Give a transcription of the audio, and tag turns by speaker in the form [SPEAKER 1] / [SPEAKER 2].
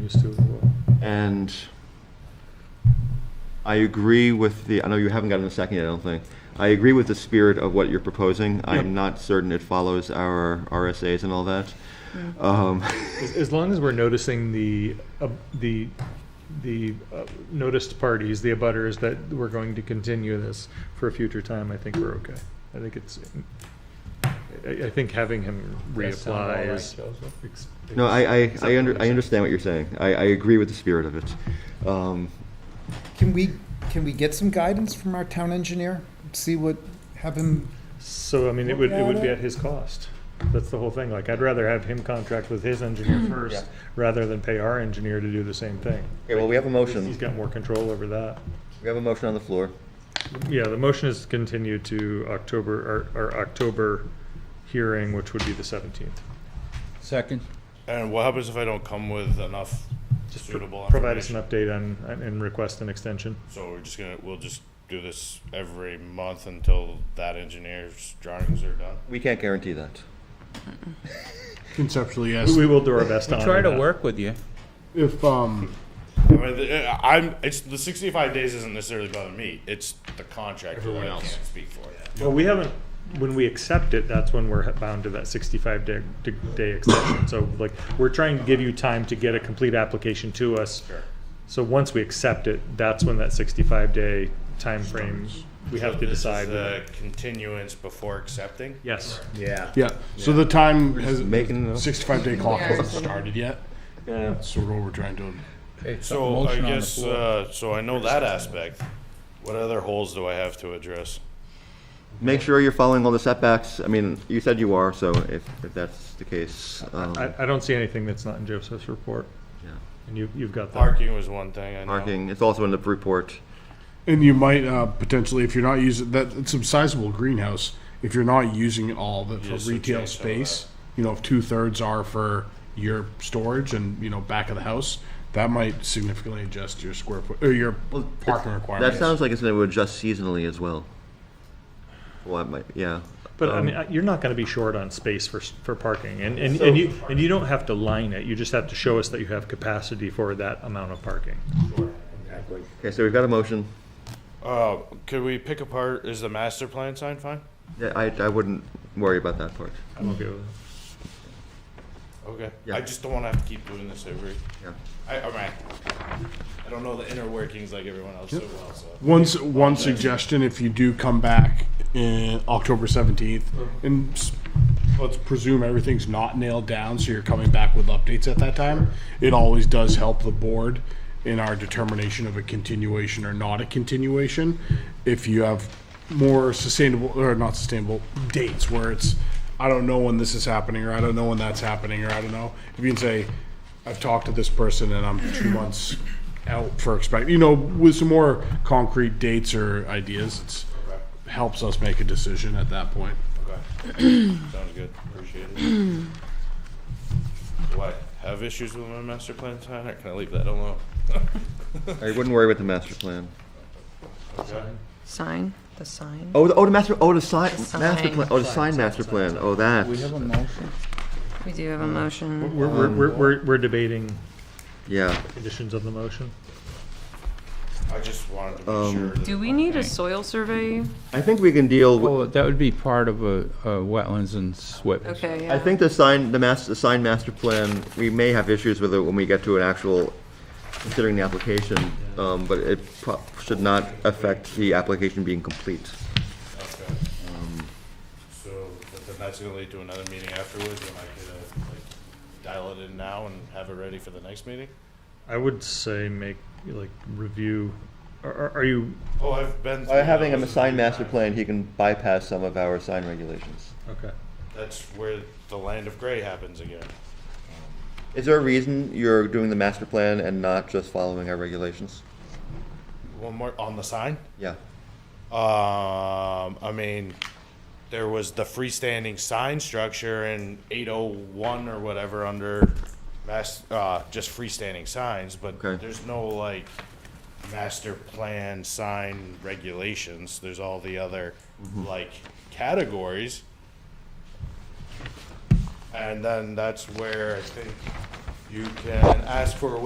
[SPEAKER 1] used to as well.
[SPEAKER 2] And I agree with the, I know you haven't gotten a second yet, I don't think. I agree with the spirit of what you're proposing.
[SPEAKER 1] Yeah.
[SPEAKER 2] I'm not certain it follows our RSAs and all that.
[SPEAKER 1] Mm-hmm.
[SPEAKER 2] Um,
[SPEAKER 1] As, as long as we're noticing the, uh, the, the uh, noticed parties, the abutters, that we're going to continue this for a future time, I think we're okay. I think it's, I, I think having him
[SPEAKER 3] Does sound all
[SPEAKER 1] reapply
[SPEAKER 3] right,
[SPEAKER 1] is.
[SPEAKER 3] Joseph.
[SPEAKER 1] ex-
[SPEAKER 2] No, I, I, I
[SPEAKER 1] acceptable.
[SPEAKER 2] under, I understand what you're saying. I, I agree with the spirit of it. Um,
[SPEAKER 4] Can we, can we get some guidance from our town engineer? See what, have him,
[SPEAKER 1] So, I mean, it would, it would be at his cost. That's the whole thing. Like, I'd rather have him contract with his engineer first, rather than pay our engineer to do the same thing.
[SPEAKER 2] Okay, well, we have a
[SPEAKER 1] He's
[SPEAKER 2] motion.
[SPEAKER 1] got more control over that.
[SPEAKER 2] We have a motion on the floor.
[SPEAKER 1] Yeah, the motion is continued to October, our, our October hearing, which would be the seventeenth.
[SPEAKER 3] Second.
[SPEAKER 5] And what happens if I don't come with enough
[SPEAKER 1] Just pro-
[SPEAKER 5] suitable
[SPEAKER 1] provide us an
[SPEAKER 5] information?
[SPEAKER 1] update on, on- and request an extension.
[SPEAKER 5] So we're just gonna, we'll just do this every month until that engineer's drawings are done?
[SPEAKER 2] We can't guarantee that.
[SPEAKER 6] Conceptually,
[SPEAKER 1] We
[SPEAKER 6] yes.
[SPEAKER 1] we will do our best on
[SPEAKER 3] Try to work with you.
[SPEAKER 6] If, um,
[SPEAKER 5] I mean, the- uh, I'm, it's, the sixty-five days isn't necessarily bothering me, it's the contractor that I can't speak for.
[SPEAKER 1] Well, we haven't, when we accept it, that's when we're bound to that sixty-five day, day extension. So like, we're trying to give you time to get a complete application to us.
[SPEAKER 5] Sure.
[SPEAKER 1] So once we accept it, that's when that sixty-five day timeframe, we have to
[SPEAKER 5] This is
[SPEAKER 1] decide.
[SPEAKER 5] The continuance before accepting?
[SPEAKER 1] Yes.
[SPEAKER 5] Yeah.
[SPEAKER 6] yeah, so the time has,
[SPEAKER 2] making a-
[SPEAKER 6] sixty-five day clock
[SPEAKER 7] Yeah.
[SPEAKER 6] hasn't started yet. Yeah. Sort of what we're trying to,
[SPEAKER 5] So I guess, uh, so I know that aspect. What other holes do I have to address?
[SPEAKER 2] Make sure you're following all the setbacks. I mean, you said you are, so if, if that's the case, um,
[SPEAKER 1] I, I don't see anything that's not in Joseph's report.
[SPEAKER 2] Yeah.
[SPEAKER 1] And you, you've got that.
[SPEAKER 5] Parking was one thing, I know.
[SPEAKER 2] marking, it's also in the report.
[SPEAKER 6] and you might, uh, potentially, if you're not using, that, it's a sizable greenhouse. If you're not using it all of it
[SPEAKER 5] Yes,
[SPEAKER 6] for
[SPEAKER 5] so
[SPEAKER 6] retail
[SPEAKER 5] change some of that.
[SPEAKER 6] space, you know, if two-thirds are for your storage and, you know, back of the house, that might significantly adjust your square foot, or your parking
[SPEAKER 2] That
[SPEAKER 6] requirements.
[SPEAKER 2] sounds like it's going to adjust seasonally as well. Well, that might, yeah.
[SPEAKER 1] But I mean, I- you're not going to be short on space for, s- for parking, and, and, and you, and you don't have to line it, you just have to show us that you have capacity for that amount of parking.
[SPEAKER 2] Okay, so we've got a motion.
[SPEAKER 5] Uh, could we pick apart, is the master plan signed fine?
[SPEAKER 2] Yeah, I, I wouldn't worry about that part.
[SPEAKER 1] I'm okay with it.
[SPEAKER 5] Okay.
[SPEAKER 2] Yeah.
[SPEAKER 5] I just don't want to have to keep doing this every.
[SPEAKER 2] Yeah.
[SPEAKER 5] I, all right. I don't know the inner workings like everyone else so well. So
[SPEAKER 6] One, s- one suggestion, if you do come back in October 17th, and s- let's presume everything's not nailed down, so you're coming back with updates at that time, it always does help the board in our determination of a continuation or not a continuation. If you have more sustainable, or not sustainable, dates where it's, I don't know when this is happening, or I don't know when that's happening, or I don't know. If you can say, I've talked to this person and I'm two months out for expect, you know, with some more concrete dates or ideas, it's, helps us make a decision at that point.
[SPEAKER 5] sounds good. Appreciate it. Do I have issues with my master plan sign, or can I leave that alone?
[SPEAKER 2] I wouldn't worry about the master plan.
[SPEAKER 7] Sign, the sign.
[SPEAKER 2] Oh, the, oh, the master, oh, the sign,
[SPEAKER 7] The
[SPEAKER 2] master
[SPEAKER 7] sign.
[SPEAKER 2] plan, oh, the sign master plan, oh, that.
[SPEAKER 3] We have a motion.
[SPEAKER 7] We do have a
[SPEAKER 2] Mm.
[SPEAKER 7] motion.
[SPEAKER 1] We're, we're, we're- we're, we're debating
[SPEAKER 2] Yeah,
[SPEAKER 1] conditions of the motion.
[SPEAKER 5] I just wanted to make
[SPEAKER 2] Um,
[SPEAKER 5] sure. That
[SPEAKER 7] Do we need a soil survey?
[SPEAKER 2] I think we can deal with,
[SPEAKER 3] Well, that would be part of a, a wetlands and SWIP.
[SPEAKER 7] Okay,
[SPEAKER 2] I
[SPEAKER 7] yeah.
[SPEAKER 2] think the sign, the mas, the sign master plan, we may have issues with it when we get to an actual, considering the application, um, but it pro- should not affect the application being complete.
[SPEAKER 5] okay.
[SPEAKER 2] um,
[SPEAKER 5] so, but then that's gonna lead to another meeting afterwards, and I could uh, like dial it in now and have it ready for the next meeting.
[SPEAKER 1] I would say make, like, review, are- are, are you,
[SPEAKER 5] Oh, I've been.
[SPEAKER 2] By
[SPEAKER 5] through
[SPEAKER 2] having him
[SPEAKER 5] those
[SPEAKER 2] a sign
[SPEAKER 5] three
[SPEAKER 2] master
[SPEAKER 5] times.
[SPEAKER 2] plan, he can bypass some of our sign regulations.
[SPEAKER 1] okay.
[SPEAKER 5] That's where the land of gray happens again.
[SPEAKER 2] Is there a reason you're doing the master plan and not just following our regulations?
[SPEAKER 5] One more on the sign.
[SPEAKER 2] Yeah.
[SPEAKER 5] Um, I mean, there was the freestanding sign structure in eight oh one or whatever under mass, uh, just freestanding signs, but
[SPEAKER 2] Okay.
[SPEAKER 5] there's no like master plan sign regulations. There's all the other like categories. And then that's where I think you can ask for a